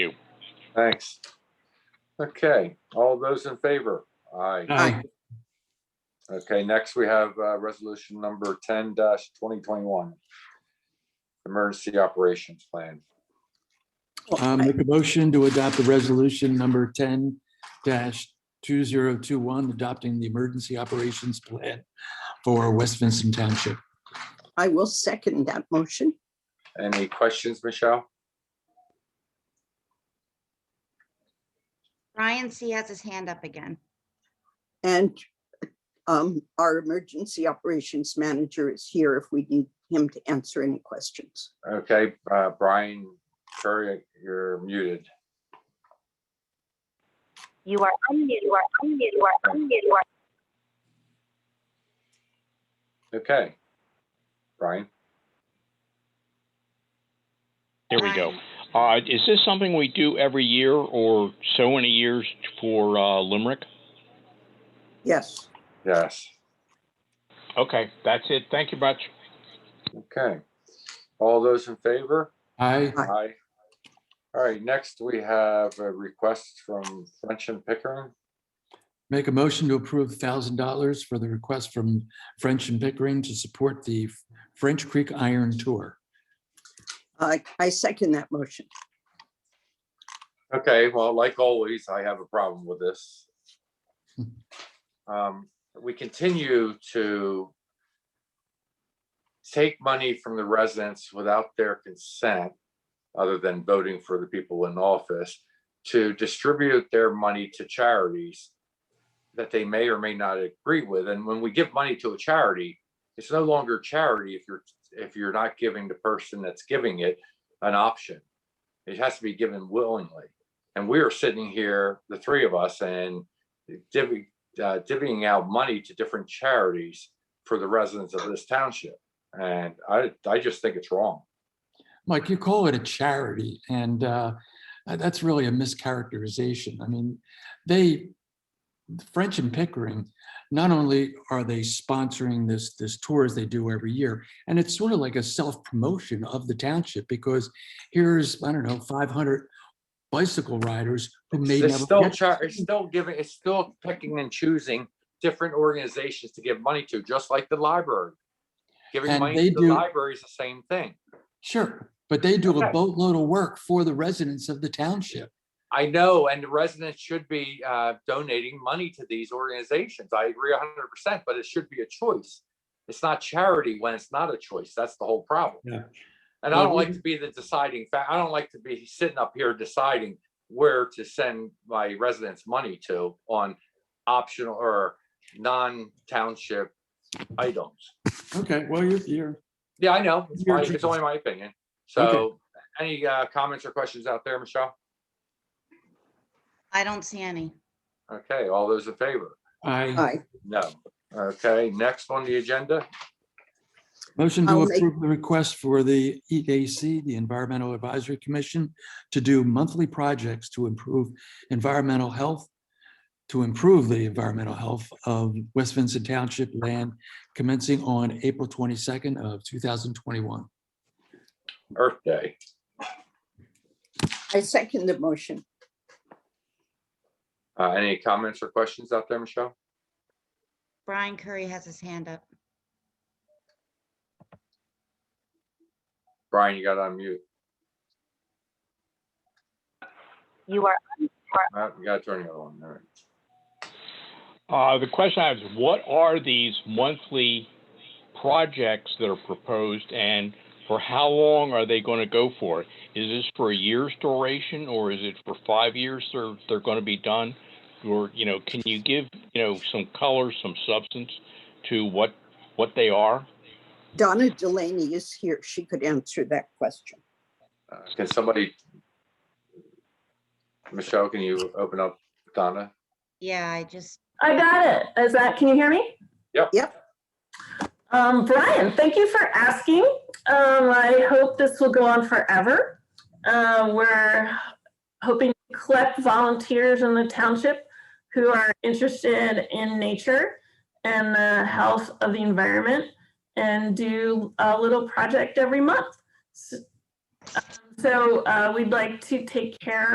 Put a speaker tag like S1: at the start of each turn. S1: Thanks. Okay, all those in favor? Aye.
S2: Aye.
S1: Okay, next we have uh, resolution number ten twenty twenty-one. Emergency Operations Plan.
S2: Well,
S3: Um, Make a motion to adopt the resolution number ten two zero two one, adopting the emergency operations plan for West Vincent Township.
S2: I will second that motion.
S1: Any questions, Michelle?
S4: Ryan C has his hand up again.
S2: And um, our emergency operations manager is here if we need him to answer any questions.
S1: Okay, uh, Brian, sorry, you're muted.
S5: You are unmuted, you are unmuted, you are unmuted, you are
S1: Okay. Brian,
S6: There we go.
S4: Ryan,
S6: Uh, is this something we do every year or so many years for, uh, Limerick?
S2: Yes,
S1: yes,
S6: Okay, that's it. Thank you much.
S1: okay. All those in favor?
S3: Aye.
S2: Aye.
S1: Aye. All right, next we have a request from French and Pickering.
S3: Make a motion to approve thousand dollars for the request from French and Pickering to support the French Creek Iron Tour.
S2: I, I second that motion.
S1: Okay, well, like always, I have a problem with this. Um, We continue to take money from the residents without their consent, other than voting for the people in office, to distribute their money to charities that they may or may not agree with. And when we give money to a charity, it's no longer charity if you're, if you're not giving the person that's giving it an option. It has to be given willingly. And we are sitting here, the three of us, and divvy, uh, divvying out money to different charities for the residents of this township. And I, I just think it's wrong.
S3: Mike, you call it a charity, and uh, uh, that's really a mischaracterization. I mean, they, French and Pickering, not only are they sponsoring this, this tour as they do every year, and it's sort of like a self-promotion of the township, because here's, I don't know, 500 bicycle riders who may
S1: It's
S3: never
S1: still,
S3: get-
S1: char- it's still giving, it's still picking and choosing different organizations to give money to, just like the library. Giving
S3: And
S1: money
S3: they
S1: to the
S3: do-
S1: library is the same thing.
S3: Sure, but they do
S1: Okay.
S3: a boatload of work for the residents of the township.
S1: I know, and the residents should be uh, donating money to these organizations. I agree hundred percent, but it should be a choice. It's not charity when it's not a choice. That's the whole problem.
S3: Yeah.
S1: And I
S3: Well,
S1: don't like
S3: we-
S1: to be the deciding fa, I don't like to be sitting up here deciding where to send my residents' money to on optional or non-township items.
S3: Okay, well, you're, you're,
S1: Yeah, I know. It's
S3: Your
S1: my- it's
S3: choice.
S1: only my opinion.
S3: Okay.
S1: So any uh, comments or questions out there, Michelle?
S4: I don't see any.
S1: Okay, all those in favor?
S3: I,
S2: Aye,
S1: No. Okay, next on the agenda.
S3: motion to
S2: I'll make-
S3: approve the request for the EAC, the Environmental Advisory Commission, to do monthly projects to improve environmental health, to improve the environmental health of West Vincent Township land commencing on April twenty-second of two thousand twenty-one.
S1: Earth Day.
S2: I second the motion.
S1: Uh, any comments or questions out there, Michelle?
S4: Brian Curry has his hand up.
S1: Brian, you got on mute.
S5: you are
S1: Uh, you gotta turn your on. All right.
S6: Uh, the question I have is what are these monthly projects that are proposed and for how long are they going to go for? Is this for a year's duration or is it for five years they're, they're going to be done? Or, you know, can you give, you know, some color, some substance to what, what they are?
S2: Donna Delaney is here. She could answer that question.
S1: Uh, Can somebody? Michelle, can you open up Donna?
S4: Yeah, I just,
S7: I got it. Is that, can you hear me?
S1: Yep.
S2: Yep.
S7: Um, Brian, thank you for asking. Um, I hope this will go on forever. Uh, we're hoping to collect volunteers in the township who are interested in nature and the health of the environment and do a little project every month. S- um, So, uh, we'd like to take care